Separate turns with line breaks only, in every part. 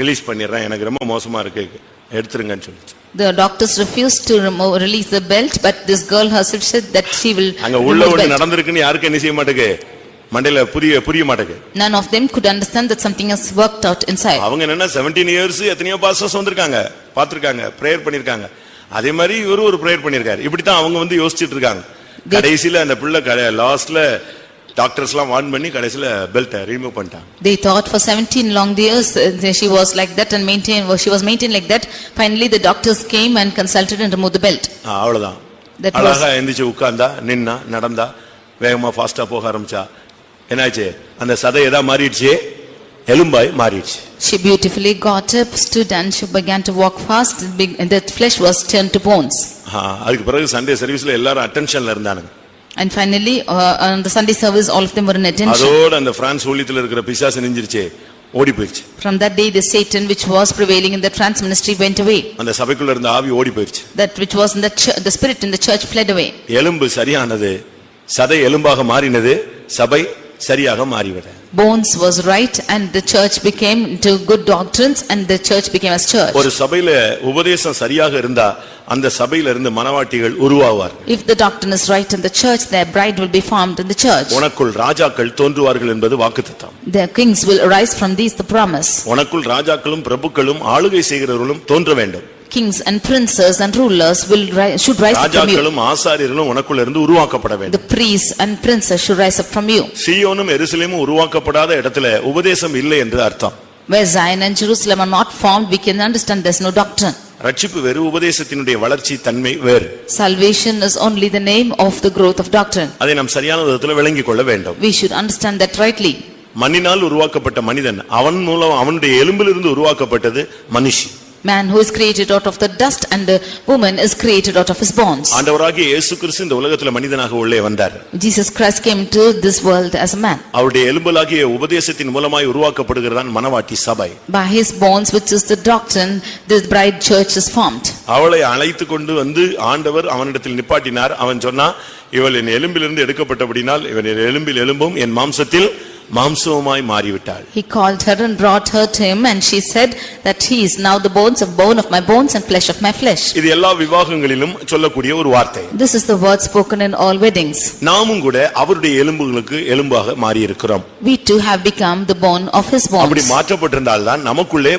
Release பண்ணிடுறேன் எனக்கு ரொம்ப மோசமா இருக்கு எடுத்துருங்கன்னு சொல்லிச்சு
The doctors refused to remove, release the belt, but this girl herself said that she will
அங்க உள்ள
remove
ஒண்ணு
belt.
நடந்திருக்குன்னு யாருக்கும் என்ன செய்ய மாட்டேங்கு மண்டையில புரிய புரிய மாட்டேங்கு
None of them could understand that something has worked out inside.
அவங்க என்னன்னா செவன்டீன் இயர்ஸ் எத்தனையோ பாஸ்டர்ஸ் வந்திருக்காங்க பார்த்திருக்காங்க பிரேயர் பண்ணிருக்காங்க அதே மாதிரி இவரு ஒரு பிரேயர் பண்ணிருக்காரு இப்படித்தான் அவங்க வந்து யோசிச்சிட்டு இருக்காங்க கடைசியில அந்த பிள்ளை லாஸ்ட்ல டாக்டர்ஸ் எல்லாம் வார்ன் பண்ணி கடைசியில பெல்ட்டை ரிமூவ் பண்ணிட்டாங்க
They thought for seventeen long years, uh, she was like that and maintained, she was maintained like that. Finally, the doctors came and consulted and removed the belt.
ஆ, அவ்வளவுதான்
That was-
அழகா எந்திரிச்சு உட்கார்ந்தா நின்னா நடந்தா வேகமா ஃபாஸ்டா போக ஆரம்பிச்சா என்னாச்சு அந்த சதை எதா மாறிடுச்சு எலும்பாய் மாறிடுச்சு
She beautifully got up, stood and she began to walk fast, big- and that flesh was turned to bones.
ஆ, அதுக்கு பிறகு சண்டே சர்வீஸ்ல எல்லாரும் அட்டென்ஷன்ல இருந்தானுங்க
And finally, uh, on the Sunday service, all of them were in attention.
அதோட அந்த France ஊழியத்துல இருக்கிற பிசாசு நெஞ்சிருச்சு ஓடி போயிடுச்சு
From that day, the Satan which was prevailing in the trans ministry went away.
அந்த சபைக்குள்ள இருந்த ஆவி ஓடி போயிடுச்சு
That which was in the church, the spirit in the church fled away.
எலும்பு சரியானது சதை எலும்பாக மாறினது சபை சரியாக மாறிவிட
Bones was right and the church became to good doctrines and the church became as church.
ஒரு சபையில உபதேசம் சரியாக இருந்தா அந்த சபையில இருந்து மனவாட்டிகள் உருவாவார்
If the doctrine is right in the church, their bride will be formed in the church.
உனக்குள் ராஜாக்கள் தோன்றுவார்கள் என்பது வாக்குத்தத்தம்
Their kings will arise from these, the promise.
உனக்குள் ராஜாக்களும் பிரபுக்களும் ஆளுகை செய்கிறவர்களும் தோன்ற வேண்டும்
Kings and princes and rulers will, ri- should rise up from you.
ராஜாக்களும் ஆசாரியர்களும் உனக்குள்ள இருந்து உருவாக்கப்பட
The
வேண்டும்
priests and princes should rise up from you.
சீயோனும் எருசலேமும் உருவாக்கப்படாத இடத்துல உபதேசம் இல்லை என்று அர்த்தம்
Where Zion and Jerusalem are not formed, we can understand there's no doctrine.
ரட்சிப்பு வேறு உபதேசத்தினுடைய வளர்ச்சி தன்மை வேறு
Salvation is only the name of the growth of doctrine.
அதை நாம் சரியான விதத்துல விளங்கிக் கொள்ள வேண்டும்
We should understand that rightly.
மண்ணினால் உருவாக்கப்பட்ட மனிதன் அவன் மூலம் அவனுடைய எலும்பிலிருந்து உருவாக்கப்பட்டது மனுஷி
Man who is created out of the dust and the woman is created out of his bones.
ஆண்டவராகிய இயேசு கிறிஸ்து இந்த உலகத்துல மனிதனாக உள்ளே வந்தார்
Jesus Christ came to this world as a man.
அவருடைய எலும்பலாகிய உபதேசத்தின் மூலமாய் உருவாக்கப்படுகிறதான் மனவாட்டி சபை
By his bones, which is the doctrine, the bride church is formed.
அவளை அழைத்து கொண்டு வந்து ஆண்டவர் அவனிடத்தில் நிப்பாட்டினார் அவன் சொன்னா இவள் என் எலும்பிலிருந்து எடுக்கப்பட்டபடினால் இவன் என் எலும்பில் எலும்பும் என் மாம்சத்தில் மாம்சமாய் மாறிவிட்டாள்
He called her and brought her to him and she said that he is now the bones of bone of my bones and flesh of my flesh.
இது எல்லா விவாகங்களிலும் சொல்லக்கூடிய ஒரு வார்த்தை
This is the word spoken in all weddings.
நாமும் கூட அவருடைய எலும்புகளுக்கு எலும்பாக மாறி இருக்கிறோம்
We too have become the bone of his
அப்படி
bones.
மாற்றப்பட்டிருந்தால் தான் நமக்குள்ளே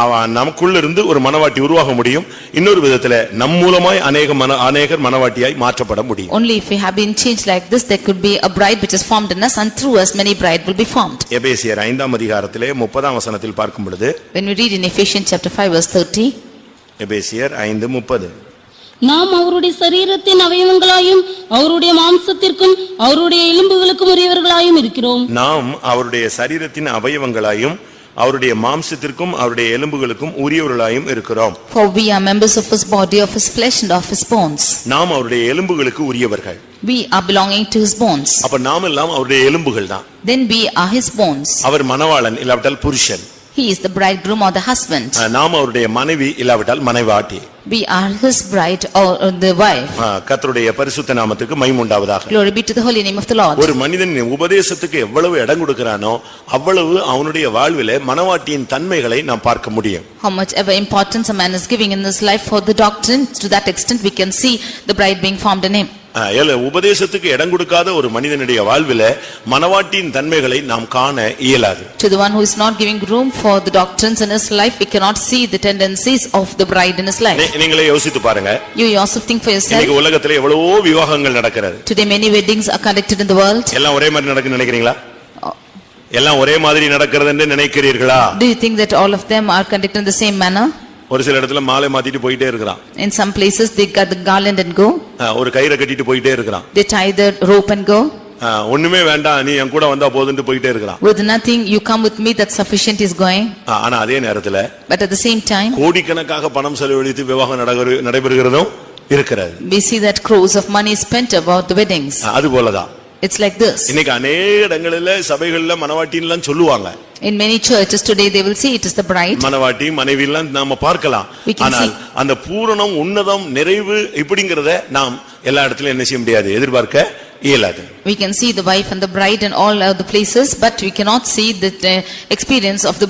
அவ- நமக்குள்ள இருந்து ஒரு மனவாட்டி உருவாக முடியும் இன்னொரு விதத்துல நம் மூலமாய் அநேக மன அநேகர் மனவாட்டியாய் மாற்றப்பட முடியும்
Only if we have been changed like this, there could be a bride which is formed in us and through us many bride will be formed.
எபேசியர் ஐந்தாம் அதிகாரத்திலே முப்பதாம் வசனத்தில் பார்க்கும் பொழுது
When we read in Ephesians chapter 5 verse 30,
எபேசியர் ஐந்து முப்பது
நாம் அவருடைய சரீரத்தின் அவயவங்களாயும் அவருடைய மாம்சத்திற்கும் அவருடைய எலும்புகளுக்கும் உரியவர்களாயும் இருக்கிறோம்
நாம் அவருடைய சரீரத்தின் அவயவங்களாயும் அவருடைய மாம்சத்திற்கும் அவருடைய எலும்புகளுக்கும் உரியவர்களாயும் இருக்கிறோம்
for we are members of his body, of his flesh and of his bones.
நாம் அவருடைய எலும்புகளுக்கு உரியவர்கள்
We are belonging to his bones,
அப்ப நாம் எல்லாம் அவருடைய எலும்புகள் தான்
then we are his bones.
அவர் மணவாளன் இல்லாவிட்டால் புருஷன்
He is the bridegroom or the husband.
அஹ், நாம் அவருடைய மனைவி இல்லாவிட்டால் மனைவாட்டி
We are his bride or or the wife.
அஹ், கர்த்தருடைய பரிசுத்த நாமத்துக்கு மைமுண்டாவதாக
Glory be to the holy name of the Lord.
ஒரு மனிதன் உபதேசத்துக்கு எவ்வளவு இடம் கொடுக்கிறானோ அவ்வளவு அவனுடைய வாழ்விலே மனவாட்டியின் தன்மைகளை நாம் பார்க்க முடியும்
How much ever importance a man is giving in his life for the doctrine, to that extent we can see the bride being formed in him.
அஹ், ஏல- உபதேசத்துக்கு இடம் கொடுக்காத ஒரு மனிதனுடைய வாழ்விலே மனவாட்டியின் தன்மைகளை நாம் காண இயலாது
To the one who is not giving room for the doctrines in his life, we cannot see the tendencies of the bride in his life.
நீ- நீங்களே யோசித்து பாருங்க
You yourself think for
இன்னைக்கு
yourself.
உலகத்துல எவ்வளவோ விவாகங்கள் நடக்கிறது
Today many weddings are conducted in the world.
எல்லாம் ஒரே மாதிரி நடக்குன்னு நினைக்கிறீங்களா எல்லாம் ஒரே மாதிரி நடக்கிறது என்று நினைக்கிறீர்களா
Do you think that all of them are conducted in the same manner?
ஒரு சில இடத்துல மாலை மாத்திட்டு போயிட்டே இருக்கிறான்
In some places, they cut the garland and go.
அஹ், ஒரு கயிறை கட்டிட்டு போயிட்டே இருக்கிறான்
They tie the rope and go.
அஹ், ஒண்ணுமே வேண்டாம் நீ என் கூட வந்தா போதுன்னு போயிட்டே இருக்கிறான்
With nothing, you come with me, that sufficient is going.
அஹ், ஆனா அதே நேரத்துல
But at the same time,
கோடிக்கணக்காக பணம் செலவழித்து விவாகம் நடக்கிற- நடைபெறுகிறதும் இருக்கிறது
we see that crores of money is spent about the weddings.
அஹ், அது போலதான்
It's like this.
இன்னைக்கு அநேக இடங்களில சபைகள்ல மனவாட்டின்லாம் சொல்லுவாங்க
In many churches today, they will say it is the bride.
மனவாட்டி மனைவி எல்லாம் நாம பார்க்கலாம்
We can
ஆனால்
see.
அந்த பூரணம் உன்னதம் நிறைவு இப்படிங்கறத நாம் எல்லா இடத்துலயும் என்ன செய்ய முடியாது எதிர்பார்க்க இயலாது
We can see the wife and the bride in all other places, but we cannot see the uh, experience of the